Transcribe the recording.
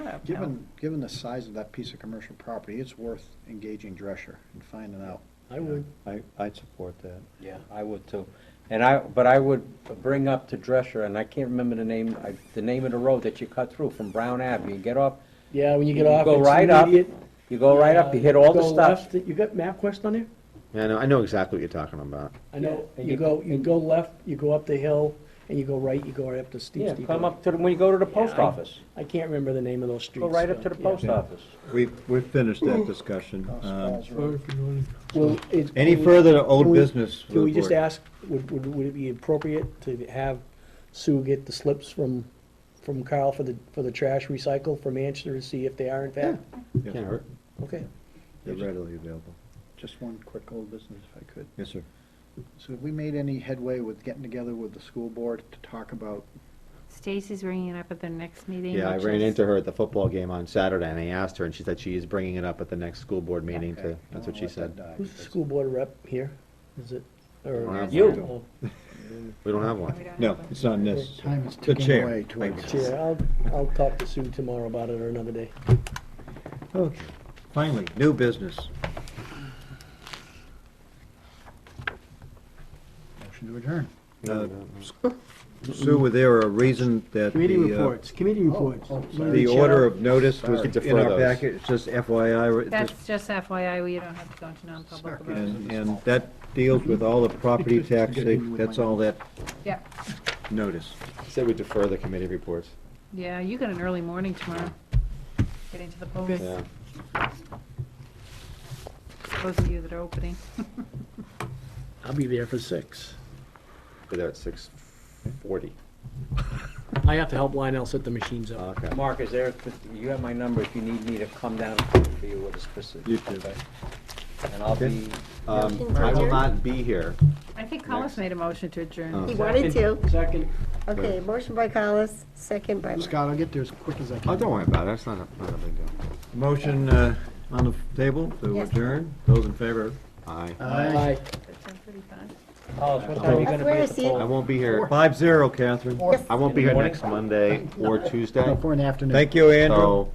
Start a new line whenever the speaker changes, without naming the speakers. Given, given the size of that piece of commercial property, it's worth engaging Drescher and finding out.
I would.
I, I'd support that.
Yeah, I would too. And I, but I would bring up to Drescher, and I can't remember the name, I- the name of the road that you cut through from Brown Avenue. You get off,
Yeah, when you get
You
off,
go
it's
right up,
immediate.
you go right up, you hit all the stuff.
You got MapQuest on there?
Yeah, I know, I know exactly what you're talking about.
I know,
Yeah.
you go, you go left, you go up the hill, and you go right, you go right up to steep,
Yeah,
steep.
come
hill.
up to, the when you go to the post
Yeah, I-
office,
I can't remember the name of those streets.
go right up to the
yeah.
post office.
We've, we've finished that discussion.
House
Um,
Uh,
Falls Road.
Well, it's-
Any
we-
further
can
old
we-
business for
Can we
the
just
board?
ask, would, would, would it be appropriate to have Sue get the slips from, from Carl for the, for the trash recycle from Manchester to see if they are in fact?
Yeah,
Can't hurt.
Okay.
They're readily available.
Just one quick old business if I could.
Yes, sir.
So have we made any headway with getting together with the school board to talk about,
Stacy's bringing it up at the next meeting.
Yeah, I
which
ran
is-
into her at the football game on Saturday, and I asked her, and she said she is bringing it up at the next school board meeting
Okay,
too.
I
That's
don't
what she
wanna let
said.
that die.
Who's the school board rep here? Is it,
Don't
or?
have
You.
one. We don't have
Oh, We
one.
don't
No,
have a-
it's not this.
Time is
The
ticking
chair.
away
Thank
towards.
Chair, I'll, I'll talk to Sue tomorrow about it or another day.
Okay. Finally, new business.
Motion to adjourn.
Uh, Sue, were there a reason that
Committee
the, uh,
reports, committee reports.
oh,
Let
sorry.
me
the
check.
order of notice was
Sorry.
in our
Defer those.
packet? It's just FYI. it just-
That's just FYI, we don't have to go into non-public about it.
And, and that deals with all the property tax, that's all that
Yeah,
notice.
She said we defer the committee reports.
yeah, you got an early morning tomorrow. Get into the polls,
Yeah.
those of you that are opening.
I'll be there for six.
We're there at six forty.
I have to help Lionel set the machines up.
Okay.
Mark, is there, you have my number if you need me to come down for you with a specific.
You too.
okay? And I'll
Okay.
be,
Um, I will not be here.
I think Collis made a motion to
Oh.
adjourn.
He wanted to.
Second.
Okay, motion by Collis, second by Mark.
Scott, I'll get there as quick as I
Oh,
can.
don't worry about it. That's not a, not a big deal.
Motion uh, on the table to
Yes.
adjourn. Those in favor?
Aye.
Aye.
Ten thirty-five.
Oh,
Collis, what time are you gonna be
Where
at
is
the
he?
poll?
I won't be here.
Five zero, Catherine.
I won't be here next Monday or Tuesday.
Four in the afternoon.
Thank you, Andrew.
So